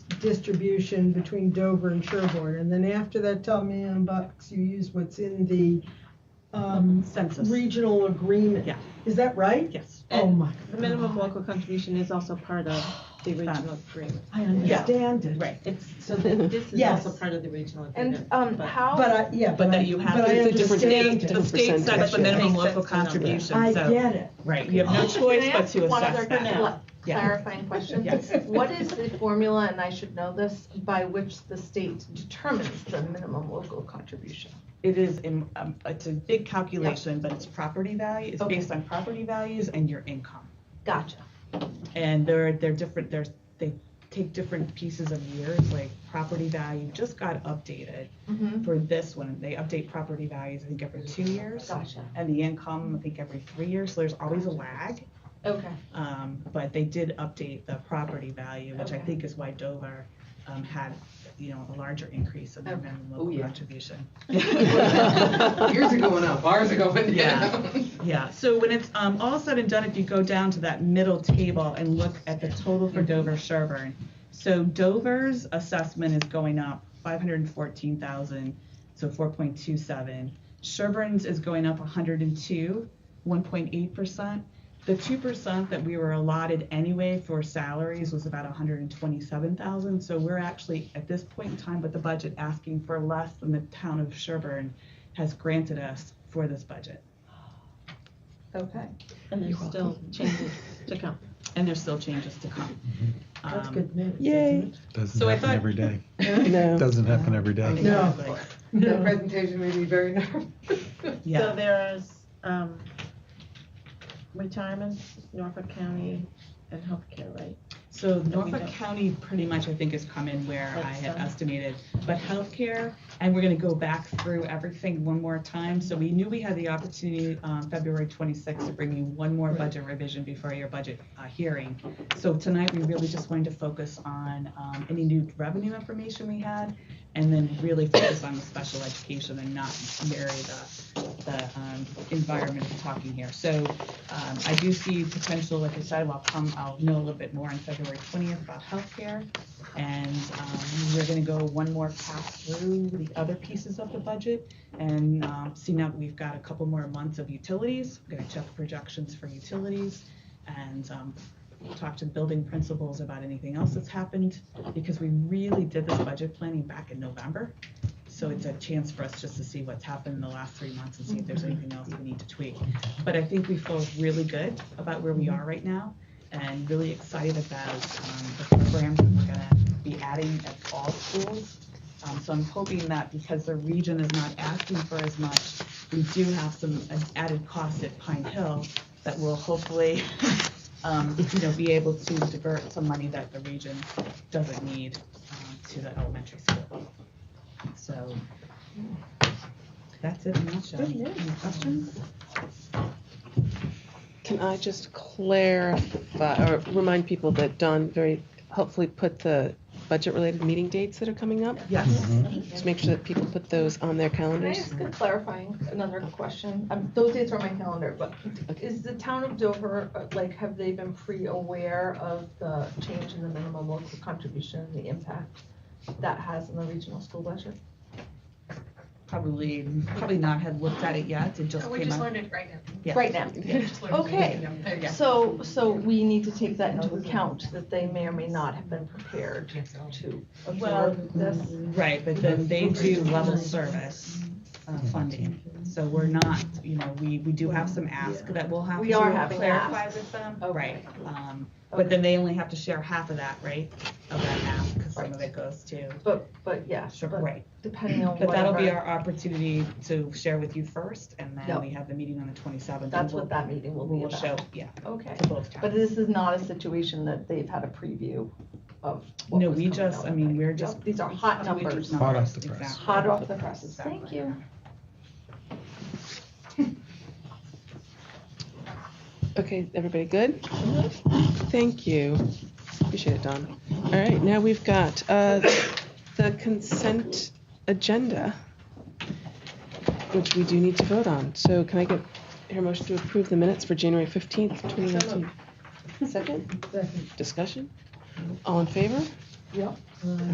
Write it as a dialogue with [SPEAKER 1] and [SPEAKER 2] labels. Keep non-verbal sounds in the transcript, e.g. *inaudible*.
[SPEAKER 1] distribution between Dover and Sherborne. And then after that, tell me on bucks, you use what's in the, um,
[SPEAKER 2] Census.
[SPEAKER 1] regional agreement.
[SPEAKER 2] Yeah.
[SPEAKER 1] Is that right?
[SPEAKER 2] Yes.
[SPEAKER 1] Oh,
[SPEAKER 3] And
[SPEAKER 1] my.
[SPEAKER 3] The minimum local contribution is also part of the regional agreement.
[SPEAKER 1] I understand it.
[SPEAKER 3] Right. It's, so thi- this is
[SPEAKER 1] Yes.
[SPEAKER 3] also part of the regional agreement.
[SPEAKER 4] And um,
[SPEAKER 3] but-
[SPEAKER 1] But
[SPEAKER 4] how,
[SPEAKER 1] I, yeah.
[SPEAKER 2] But that you have
[SPEAKER 1] but I
[SPEAKER 2] to-
[SPEAKER 5] It's a different
[SPEAKER 1] understand
[SPEAKER 5] state.
[SPEAKER 1] it.
[SPEAKER 5] The state sets
[SPEAKER 1] the
[SPEAKER 3] minimum local contribution,
[SPEAKER 1] I get it.
[SPEAKER 2] Right, you have no
[SPEAKER 4] Can
[SPEAKER 2] choice
[SPEAKER 4] I
[SPEAKER 2] but
[SPEAKER 4] ask
[SPEAKER 2] to
[SPEAKER 4] one other
[SPEAKER 2] assess that.
[SPEAKER 4] cla-
[SPEAKER 2] Yeah.
[SPEAKER 4] clarifying question?
[SPEAKER 2] Yes.
[SPEAKER 4] What is the formula, and I should know this, by which the state determines the minimum local contribution?
[SPEAKER 2] It is, in- um, it's a big calculation, but it's property value, it's
[SPEAKER 4] Okay.
[SPEAKER 2] based on property values and your income.
[SPEAKER 4] Gotcha.
[SPEAKER 2] And they're, they're different, there's, they take different pieces of years, like property value just got updated
[SPEAKER 4] Mhm.
[SPEAKER 2] for this one. They update property values, I think, every two years.
[SPEAKER 4] Gotcha.
[SPEAKER 2] And the income, I think, every three years, so there's always a lag.
[SPEAKER 6] *laughs*
[SPEAKER 4] Okay.
[SPEAKER 2] Um, but they did update the property value, which I
[SPEAKER 4] Okay.
[SPEAKER 2] think is why Dover, um, had, you know, a larger increase in their
[SPEAKER 4] Okay.
[SPEAKER 2] minimum
[SPEAKER 6] Oh,
[SPEAKER 2] local
[SPEAKER 6] yeah. *laughs*
[SPEAKER 2] contribution.
[SPEAKER 6] Yours are going up, ours are going *laughs*
[SPEAKER 2] Yeah.
[SPEAKER 6] down.
[SPEAKER 2] Yeah, so when it's, um, all said and done, if you go down to that middle table and look at the total for Dover Sherburne. So Dover's assessment is going up five hundred and fourteen thousand, so four point two seven. Sherburne's is going up hundred and two, one point eight percent. The two percent that we were allotted anyway for salaries was about hundred and twenty-seven thousand, so we're actually, at this point in time with the budget, asking for less than the town of Sherburne has granted us for this budget.
[SPEAKER 4] Okay.
[SPEAKER 3] And there's still changes to come.
[SPEAKER 2] and there's still changes to come.
[SPEAKER 1] That's
[SPEAKER 2] Um,
[SPEAKER 1] good news.
[SPEAKER 5] Yay.
[SPEAKER 1] isn't
[SPEAKER 7] Doesn't
[SPEAKER 2] So I
[SPEAKER 7] happen
[SPEAKER 2] thought-
[SPEAKER 7] every day.
[SPEAKER 5] No.
[SPEAKER 7] Doesn't happen every day.
[SPEAKER 2] exactly.
[SPEAKER 1] No. it?
[SPEAKER 6] The
[SPEAKER 1] No.
[SPEAKER 6] presentation made me very nervous.
[SPEAKER 3] So
[SPEAKER 2] Yeah.
[SPEAKER 3] there's um, retirements, Norfolk County, and healthcare, right?
[SPEAKER 2] So
[SPEAKER 3] we
[SPEAKER 2] Norfolk
[SPEAKER 3] don't-
[SPEAKER 2] County pretty much, I think, has come in where I had
[SPEAKER 3] That's done.
[SPEAKER 2] estimated. But healthcare, and we're gonna go back through everything one more time. So we knew we had the opportunity, um, February twenty-sixth to bring you one more budget revision before your budget, uh, hearing. So tonight, we really just wanted to focus on, um, any new revenue information we had and then really focus on the special education and not marry the, the, um, environment we're talking here. So Um, I do see potential, like I said, I'll come, I'll know a little bit more on February twentieth about healthcare. And, um, we're gonna go one more pass through the other pieces of the budget and, um, see now that we've got a couple more months of utilities. We're gonna check projections for utilities and, um, talk to building principals about anything else that's happened because we really did this budget planning back in November. So it's a chance for us just to see what's happened in the last three months and see if there's anything else we need to tweak. But I think we feel really good about where we are right now and really excited about um, the programs that we're gonna be adding at all schools. Um, So I'm hoping that because the region is not asking for as much, we do have some uh, added costs at Pine Hill that will hopefully, *laughs* um, you know, be able to divert some money that the region doesn't need um, to the elementary school. So that's it in a nutshell. Any questions?
[SPEAKER 5] Can I just clarify or remind people that Don very helpfully put the budget-related meeting dates that are coming up?
[SPEAKER 2] Yes.
[SPEAKER 7] Mm-hmm.
[SPEAKER 5] Just make sure that people put those on their
[SPEAKER 4] Can I
[SPEAKER 5] calendars.
[SPEAKER 4] ask a clarifying, another question? Um, Those dates are on my calendar, but is the town of Dover, uh, like, have they been pre-aware of the change in the minimum local contribution, the impact that has on the regional school budget?
[SPEAKER 2] Probably, probably not had looked at it yet, it just
[SPEAKER 8] Oh, We
[SPEAKER 2] came
[SPEAKER 8] just
[SPEAKER 2] out.
[SPEAKER 8] learned it right now.
[SPEAKER 2] Yeah.
[SPEAKER 4] Right now?
[SPEAKER 8] We just learned it.
[SPEAKER 4] Okay.
[SPEAKER 8] There you go.
[SPEAKER 4] So, so we need to take that into account, that they may or may not have been prepared to absorb this.
[SPEAKER 2] Right, but then they do level service uh, funding, so we're not, you know, we, we do have some ask that we'll have to
[SPEAKER 4] We are having
[SPEAKER 2] clarify
[SPEAKER 4] ask.
[SPEAKER 2] with them.
[SPEAKER 4] Okay.
[SPEAKER 2] Right, um, but then they only have to share half of that, right, of that ask, because some of it goes to,
[SPEAKER 4] But, but yes,
[SPEAKER 2] Sure,
[SPEAKER 4] but
[SPEAKER 2] right.
[SPEAKER 4] depending on
[SPEAKER 2] But that'll be
[SPEAKER 4] whatever-
[SPEAKER 2] our opportunity to share with you first, and then
[SPEAKER 4] Yep.
[SPEAKER 2] we have the meeting on the twenty-seventh.
[SPEAKER 4] That's what that meeting will
[SPEAKER 2] We
[SPEAKER 4] be
[SPEAKER 2] will show,
[SPEAKER 4] about.
[SPEAKER 2] yeah,
[SPEAKER 4] Okay.
[SPEAKER 2] to both towns.
[SPEAKER 4] But this is not a situation that they've had a preview of. what
[SPEAKER 2] No,
[SPEAKER 4] was
[SPEAKER 2] we
[SPEAKER 4] coming
[SPEAKER 2] just,
[SPEAKER 4] down
[SPEAKER 2] I
[SPEAKER 4] the
[SPEAKER 2] mean,
[SPEAKER 4] pike.
[SPEAKER 2] we're
[SPEAKER 4] Yep,
[SPEAKER 2] just.
[SPEAKER 4] These are hot
[SPEAKER 2] we just
[SPEAKER 4] numbers,
[SPEAKER 2] know
[SPEAKER 7] Hot off
[SPEAKER 2] this,
[SPEAKER 7] the press.
[SPEAKER 2] exactly.
[SPEAKER 4] hot off the presses.
[SPEAKER 2] Exactly.
[SPEAKER 4] Thank you.
[SPEAKER 5] Okay, everybody good? Thank you. Appreciate it, Don. All right, now we've got uh, the consent agenda, which we do need to vote on. So can I get your motion to approve the minutes for January 15th, 2019? Second?
[SPEAKER 1] Second.
[SPEAKER 5] Discussion? All in favor?
[SPEAKER 4] Yep.
[SPEAKER 1] Uh,